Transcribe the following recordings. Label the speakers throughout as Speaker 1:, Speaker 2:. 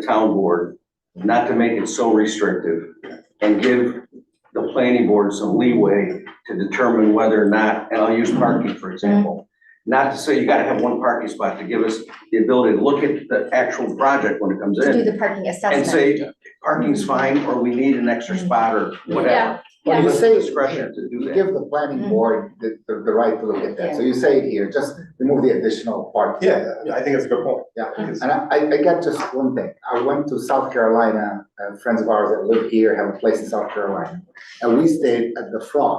Speaker 1: the town board not to make it so restrictive and give the planning board some leeway to determine whether or not, and I'll use parking, for example. Not to say you gotta have one parking spot, to give us the ability to look at the actual project when it comes
Speaker 2: to do
Speaker 1: in
Speaker 2: the parking
Speaker 1: and
Speaker 2: assessment.
Speaker 1: say, parking's fine, or we need an extra spot or whatever.
Speaker 3: Yeah.
Speaker 1: Give us
Speaker 3: Yeah.
Speaker 1: discretion to do
Speaker 3: You
Speaker 1: that.
Speaker 3: give the planning
Speaker 4: Mm-hmm.
Speaker 2: Mm.
Speaker 3: board the, the the right to look at that, so you say it here, just remove the additional part.
Speaker 5: Yeah, yeah, I think that's a good point.
Speaker 3: Yeah.
Speaker 5: Because-
Speaker 3: And I, I I got just one thing, I went to South Carolina, uh, friends of ours that live here have a place in South Carolina, and we stayed at the Frog,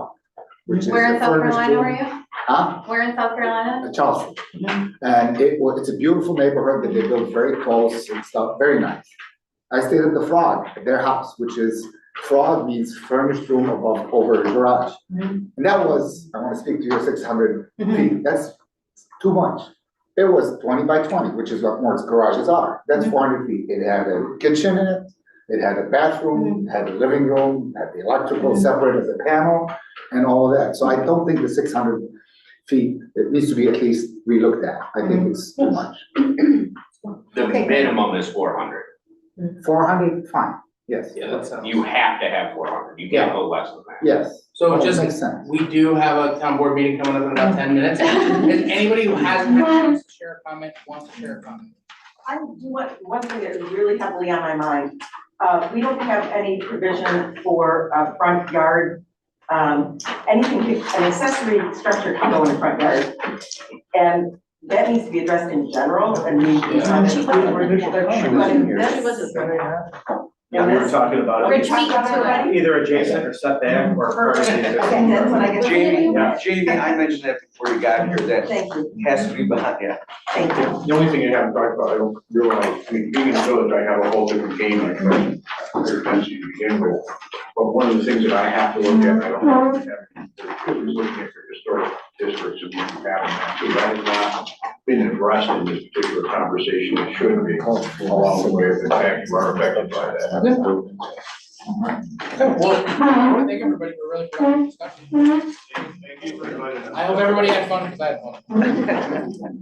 Speaker 3: which is a
Speaker 4: Where in South
Speaker 3: furnished
Speaker 4: Carolina
Speaker 3: room.
Speaker 4: were you?
Speaker 3: Huh?
Speaker 4: Where in South Carolina?
Speaker 3: Uh, Charleston. And it was, it's a beautiful neighborhood that they built very close and stuff, very nice. I stayed at the Frog, at their house, which is, Frog means furnished room above, over the garage.
Speaker 2: Mhm.
Speaker 3: And that was, I wanna speak to your six hundred
Speaker 2: Mhm.
Speaker 3: feet, that's too much. It was twenty by twenty, which is what most garages are, that's four hundred feet, it had a kitchen in it, it had a bathroom, had a living room, had the electrical separate as a panel, and all of that, so I don't think the six hundred feet, it needs to be at least relooked at, I think it's too much.
Speaker 6: The
Speaker 2: Okay.
Speaker 6: minimum is four hundred.
Speaker 3: Four hundred, fine, yes.
Speaker 6: You have to have four hundred, you can't go less than that.
Speaker 3: Yes,
Speaker 7: So
Speaker 3: that
Speaker 7: just,
Speaker 3: makes sense.
Speaker 7: we do have a town board meeting coming up in about ten minutes. If anybody who has a chance to share a comment, wants to share a comment.
Speaker 8: I do want, one thing that is really heavily on my mind, uh, we don't have any provision for a front yard. Um, anything, could- an accessory structure can go in the front yard. And that needs to be addressed in general and we.
Speaker 7: Yeah.
Speaker 8: She wasn't
Speaker 1: here.
Speaker 8: She
Speaker 9: Yeah, we were talking about
Speaker 8: We're
Speaker 9: it,
Speaker 8: talking about it.
Speaker 9: either adjacent or setback or.
Speaker 8: Perfect. Okay, that's what I guess.
Speaker 1: Jamie, Jamie, I mentioned that before you got here, that
Speaker 8: Thank you,
Speaker 1: has to be behind, yeah.
Speaker 8: thank you.
Speaker 5: The only thing I haven't talked about, I don't realize, I mean, being in the village, I have a whole different game, like, I pay attention to begin with. But one of the things that I have to look at, and I don't have to have, is looking at your historic districts and what's happening. That has not been addressed in this particular conversation, it should be, along the way of the fact you are affected by that.
Speaker 7: Okay, well, I wanna thank everybody for a really productive discussion.
Speaker 5: Thank you for inviting us.
Speaker 7: I hope everybody had fun, because I had fun.